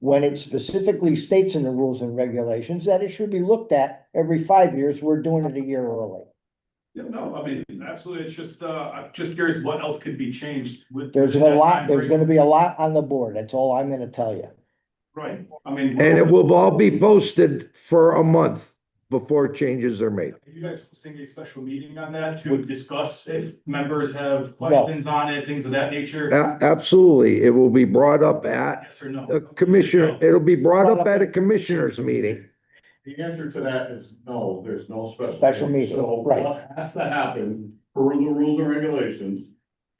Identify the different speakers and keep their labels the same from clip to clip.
Speaker 1: when it specifically states in the rules and regulations that it should be looked at every five years, we're doing it a year early.
Speaker 2: Yeah, no, I mean, absolutely, it's just, uh, I'm just curious what else could be changed with.
Speaker 1: There's a
Speaker 2: that
Speaker 1: lot,
Speaker 2: time
Speaker 1: there's
Speaker 2: frame.
Speaker 1: gonna be a lot on the board, that's all I'm gonna tell you.
Speaker 2: Right, I mean.
Speaker 3: And it will all be posted for a month before changes are made.
Speaker 2: Are you guys hosting a special meeting on that to discuss if members have questions on it, things of that nature?
Speaker 3: A- Absolutely, it will be brought up at
Speaker 2: Yes or no?
Speaker 3: a commissioner, it'll be brought up at a commissioners meeting.
Speaker 4: The answer to that is no, there's no special.
Speaker 1: Special meeting,
Speaker 4: So
Speaker 1: right.
Speaker 4: what has to happen per the rules and regulations?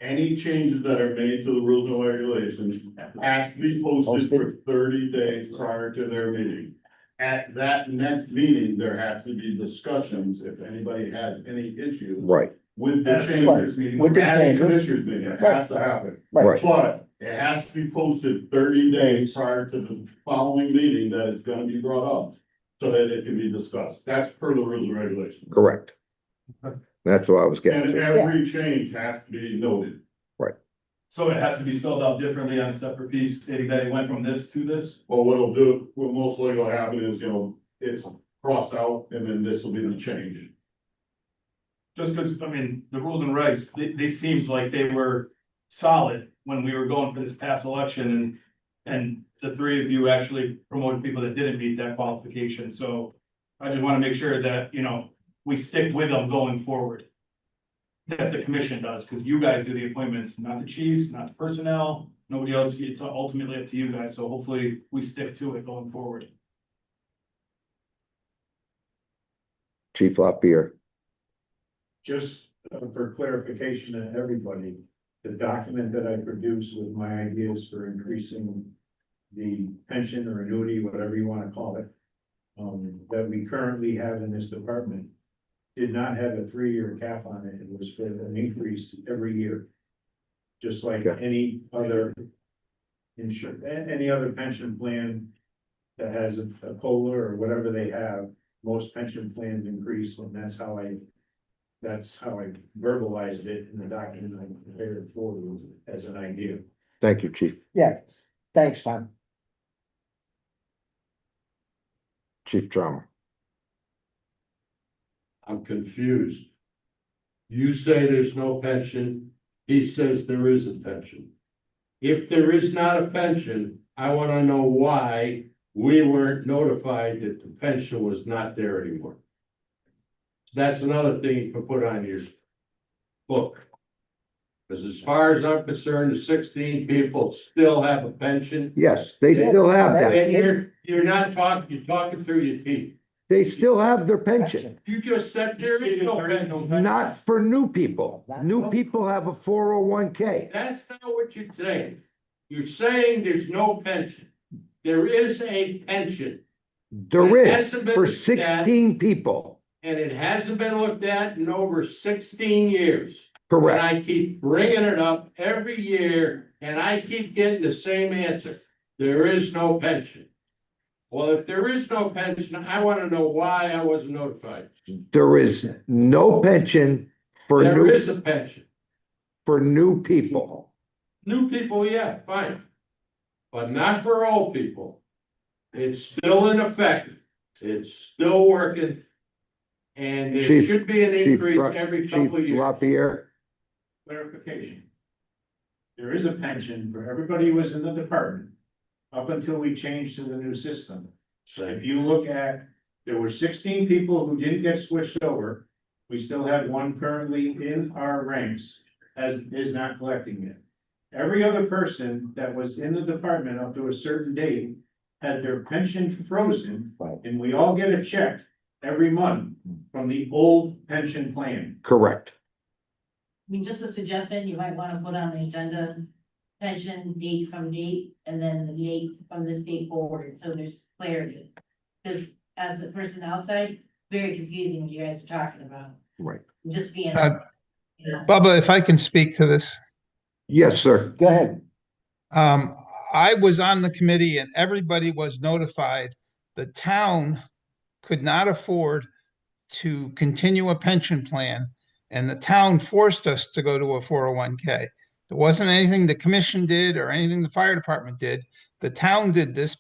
Speaker 4: Any changes that are made to the rules and regulations has to be posted for thirty days prior to their meeting. At that next meeting, there has to be discussions if anybody has any issues
Speaker 3: Right,
Speaker 4: with the changes.
Speaker 1: With the
Speaker 4: At a
Speaker 1: changes.
Speaker 4: commissioners meeting, it has to happen.
Speaker 3: right.
Speaker 4: But it has to be posted thirty days prior to the following meeting that it's gonna be brought up. So that it can be discussed. That's per the rules and regulations.
Speaker 3: Correct. That's what I was getting
Speaker 4: And
Speaker 3: to.
Speaker 4: every change has to be noted.
Speaker 2: So it has to be spelled out differently on a separate piece, stating that it went from this to this?
Speaker 4: Well, what'll do, what most likely will happen is, you know, it's crossed out and then this will be the change.
Speaker 2: Just because, I mean, the rules and regs, they, they seemed like they were solid when we were going for this past election and, and the three of you actually promoted people that didn't meet that qualification, so I just want to make sure that, you know, we stick with them going forward. That the commission does, because you guys do the appointments, not the chiefs, not the personnel, nobody else, it's ultimately up to you guys, so hopefully we stick to it going forward.
Speaker 3: Chief Lapierre.
Speaker 5: just uh, for clarification to everybody, the document that I produced with my ideas for increasing the pension or annuity, whatever you wanna call it, um, that we currently have in this department did not have a three-year cap on it. It was for an increase every year. Just like
Speaker 3: Okay.
Speaker 5: any other insur, a- any other pension plan that has a a COLA or whatever they have, most pension plans increase, and that's how I that's how I verbalized it in the document I prepared for you as an idea.
Speaker 3: Thank you, Chief.
Speaker 1: Yeah, thanks, Tom.
Speaker 3: Chief Drama.
Speaker 4: I'm confused. You say there's no pension, he says there is a pension. If there is not a pension, I wanna know why we weren't notified that the pension was not there anymore. That's another thing you can put on your book. Cause as far as I'm concerned, the sixteen people still have a pension.
Speaker 3: Yes, they still have that.
Speaker 4: And you're, you're not talking, you're talking through your teeth.
Speaker 3: They still have their pension.
Speaker 1: Action.
Speaker 4: You just said there is no pension.
Speaker 3: Not for new people. New people have a four oh one K.
Speaker 4: That's not what you're saying. You're saying there's no pension. There is a pension
Speaker 3: There is for sixteen people.
Speaker 4: and it hasn't been looked at in over sixteen years. And
Speaker 3: Correct.
Speaker 4: I keep bringing it up every year and I keep getting the same answer. There is no pension. Well, if there is no pension, I want to know why I wasn't notified.
Speaker 3: There is no pension for
Speaker 4: There
Speaker 3: new,
Speaker 4: is a pension.
Speaker 3: for new people.
Speaker 4: New people, yeah, fine. But not for old people. It's still in effect. It's still working. And there
Speaker 3: Chief-
Speaker 4: should be an
Speaker 3: Chief
Speaker 4: increase
Speaker 3: Ruck-
Speaker 4: every
Speaker 3: Chief
Speaker 4: couple of years.
Speaker 3: Lapierre,
Speaker 5: Clarification. There is a pension for everybody who was in the department up until we changed to the new system. If you look at, there were sixteen people who didn't get switched over. We still have one currently in our ranks as is not collecting it. Every other person that was in the department up to a certain date had their pension frozen.
Speaker 1: Right.
Speaker 5: And we all get a check every month from the old pension plan.
Speaker 3: correct.
Speaker 6: I mean, just a suggestion, you might wanna put on the agenda, pension date from date, and then the date from this date forward, so there's clarity. Cause as a person outside, very confusing what you guys are talking about,
Speaker 3: Right.
Speaker 6: I'm just being.
Speaker 7: Uh,
Speaker 6: you know.
Speaker 7: Bubba, if I can speak to this,
Speaker 3: Yes, sir.
Speaker 1: Go ahead.
Speaker 7: um, I was on the committee and everybody was notified. The town could not afford to continue a pension plan and the town forced us to go to a four oh one K. It wasn't anything the commission did or anything the fire department did. The town did this